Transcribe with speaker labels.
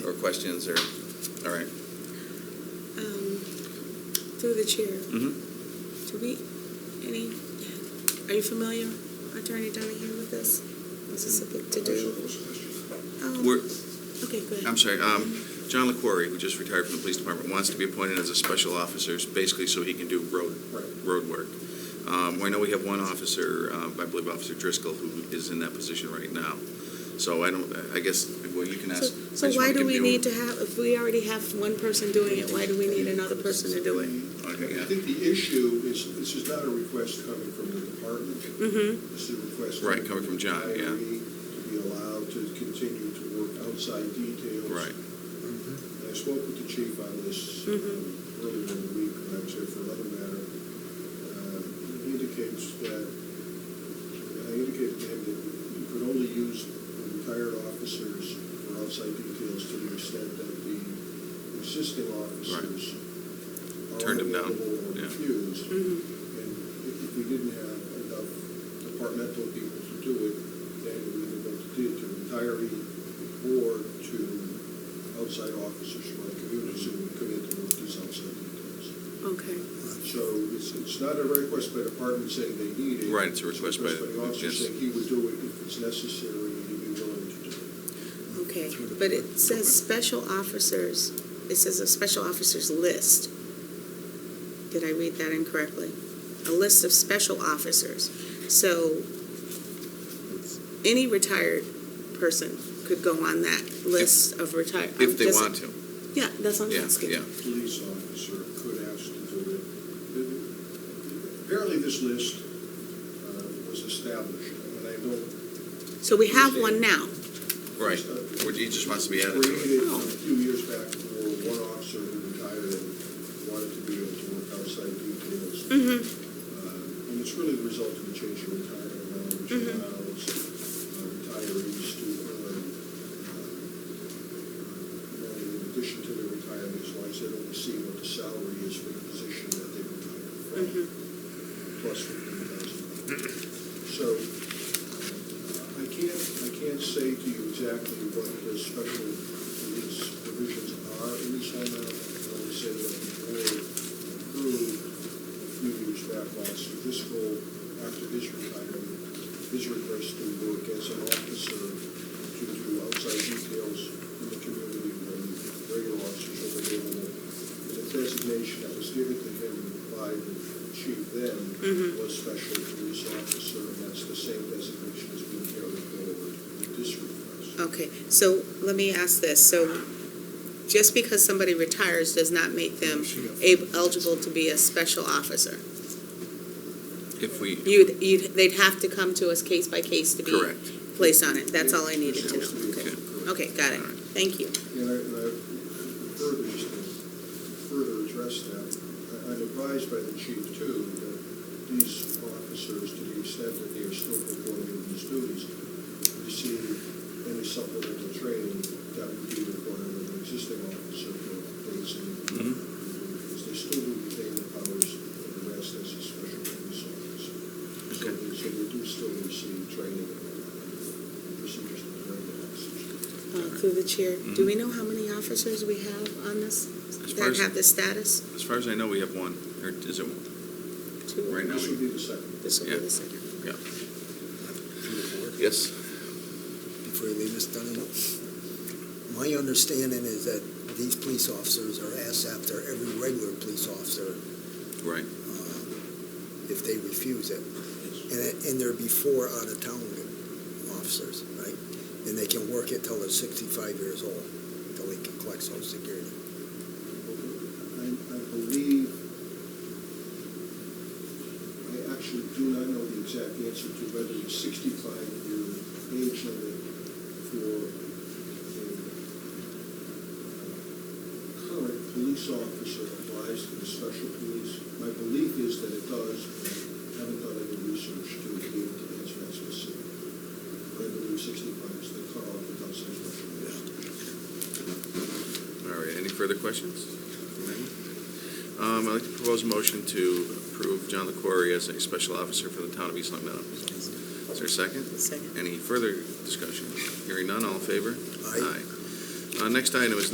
Speaker 1: questions or, all right.
Speaker 2: Um, Through the chair,
Speaker 1: Mhm.
Speaker 2: do we, any, are you familiar, Attorney Donahue, with this? Was this a big to-do? Oh,
Speaker 1: We're,
Speaker 2: Okay, go ahead.
Speaker 1: I'm sorry, um, John LaQuarrie, who just retired from the police department, wants to be appointed as a special officer, basically so he can do road, road work. Um, I know we have one officer, um, I believe Officer Driscoll, who is in that position right now. So I don't, I guess, well, you can ask. I
Speaker 2: So
Speaker 1: just
Speaker 2: why
Speaker 1: wanna
Speaker 2: do
Speaker 1: give
Speaker 2: we
Speaker 1: you-
Speaker 2: need to have, if we already have one person doing it, why do we need another person to do it?
Speaker 1: Okay,
Speaker 3: I
Speaker 1: yeah.
Speaker 3: think the issue is, this is not a request coming from the department.
Speaker 2: Mm-hmm.
Speaker 3: This is a request.
Speaker 1: Right, coming from John,
Speaker 3: the
Speaker 1: yeah.
Speaker 3: IRE To be allowed to continue to work outside details.
Speaker 1: Right.
Speaker 3: And I spoke with the chief on this um,
Speaker 2: Mhm.
Speaker 3: earlier in the week, when I was here for another matter. Um, He indicates that, I indicated to him that you could only use retired officers for outside details to the extent that the existing officers are
Speaker 1: Turned him down,
Speaker 3: unavailable
Speaker 1: yeah.
Speaker 3: or refused.
Speaker 2: Mhm.
Speaker 3: And if if we didn't have enough departmental people to do it, then we would have to do it to retiree or to outside officers from our communities who would come in to work these outside details.
Speaker 2: Okay.
Speaker 3: So it's, it's not a request by department saying they need it.
Speaker 1: Right, it's a request by-
Speaker 3: It's an officer
Speaker 1: yes.
Speaker 3: saying he would do it if it's necessary and he'd be willing to do it.
Speaker 2: Okay, but it says special officers, it says a special officers list. Did I read that incorrectly? A list of special officers. So any retired person could go on that list of retired.
Speaker 1: If they want to.
Speaker 2: Yeah, that's what I'm
Speaker 1: Yeah,
Speaker 2: asking.
Speaker 1: yeah.
Speaker 3: Police officer could ask to do it. Apparently this list uh, was established, and I don't
Speaker 2: So we have one now.
Speaker 1: Right, Or he just wants to be added to it.
Speaker 3: uh, Created a few years back, there were one officer who retired and wanted to be able to work outside details.
Speaker 2: Mm-hmm.
Speaker 3: Uh, And it's really the result of the change in retirement law, which
Speaker 2: Mhm.
Speaker 3: allows uh, retirees to earn uh, money in addition to their retirement, as long as they don't see what the salary is for the position that they retired from,
Speaker 2: Mhm.
Speaker 3: plus fifteen thousand. So uh, I can't, I can't say to you exactly what the special release provisions are in this amendment. I only say that the board approved few years back last year, this role, after his retirement, his request to work as an officer to do outside details in the community when regular officers are available. And the designation that was given to him by the chief then
Speaker 2: Mhm.
Speaker 3: was special police officer, and that's the same designation that's being carried forward with this request.
Speaker 2: Okay, so let me ask this. So just because somebody retires does not make them ab- eligible to be a special officer?
Speaker 1: If we,
Speaker 2: You'd, you'd, they'd have to come to us case by case to be
Speaker 1: Correct.
Speaker 2: placed on it. That's all I needed to
Speaker 3: Yes, we-
Speaker 2: know. Okay, okay, got it. Thank you.
Speaker 3: And I, and I further, just to further address that, I- I'm advised by the chief too, that these officers, to the extent that they are still performing these duties, receive any supplemental training that would be required of an existing officer for days and,
Speaker 1: Mhm.
Speaker 3: because they still do retain the powers of the rest as a special police officer. So
Speaker 1: Okay.
Speaker 3: they, so they do still receive training and procedures that are regular officers.
Speaker 2: Uh, Through the chair, do we know how many officers we have on this,
Speaker 1: Mm-hmm. As far
Speaker 2: that
Speaker 1: as-
Speaker 2: have this status?
Speaker 1: as far as I know, we have one, or is it one?
Speaker 2: Two.
Speaker 1: Right now.
Speaker 3: This would be the second.
Speaker 2: This will be
Speaker 1: Yeah.
Speaker 2: the second.
Speaker 1: Yeah.
Speaker 4: Before
Speaker 1: Yes.
Speaker 4: you leave, Ms. Dunham, my understanding is that these police officers are asked after every regular police officer
Speaker 1: Right.
Speaker 4: uh, if they refuse it. And, and they're before out-of-town officers, right? And they can work it till they're 65 years old, till they can collect social security.
Speaker 3: I, I believe, I actually do not know the exact answer to whether the sixty-five year age limit for a current police officer applies to the special police. My belief is that it does, but I haven't done any research to be able to answer that specifically. But I believe sixty-five is the cutoff for outside special police.
Speaker 1: All right, any further questions? from anyone? Um, I'd like to propose a motion to approve John LaQuarrie as a special officer for the town of East Long Meadow. Is there a second?
Speaker 2: Second.
Speaker 1: Any further discussion? Hearing none, all in favor?
Speaker 4: Aye.
Speaker 1: Uh, next item is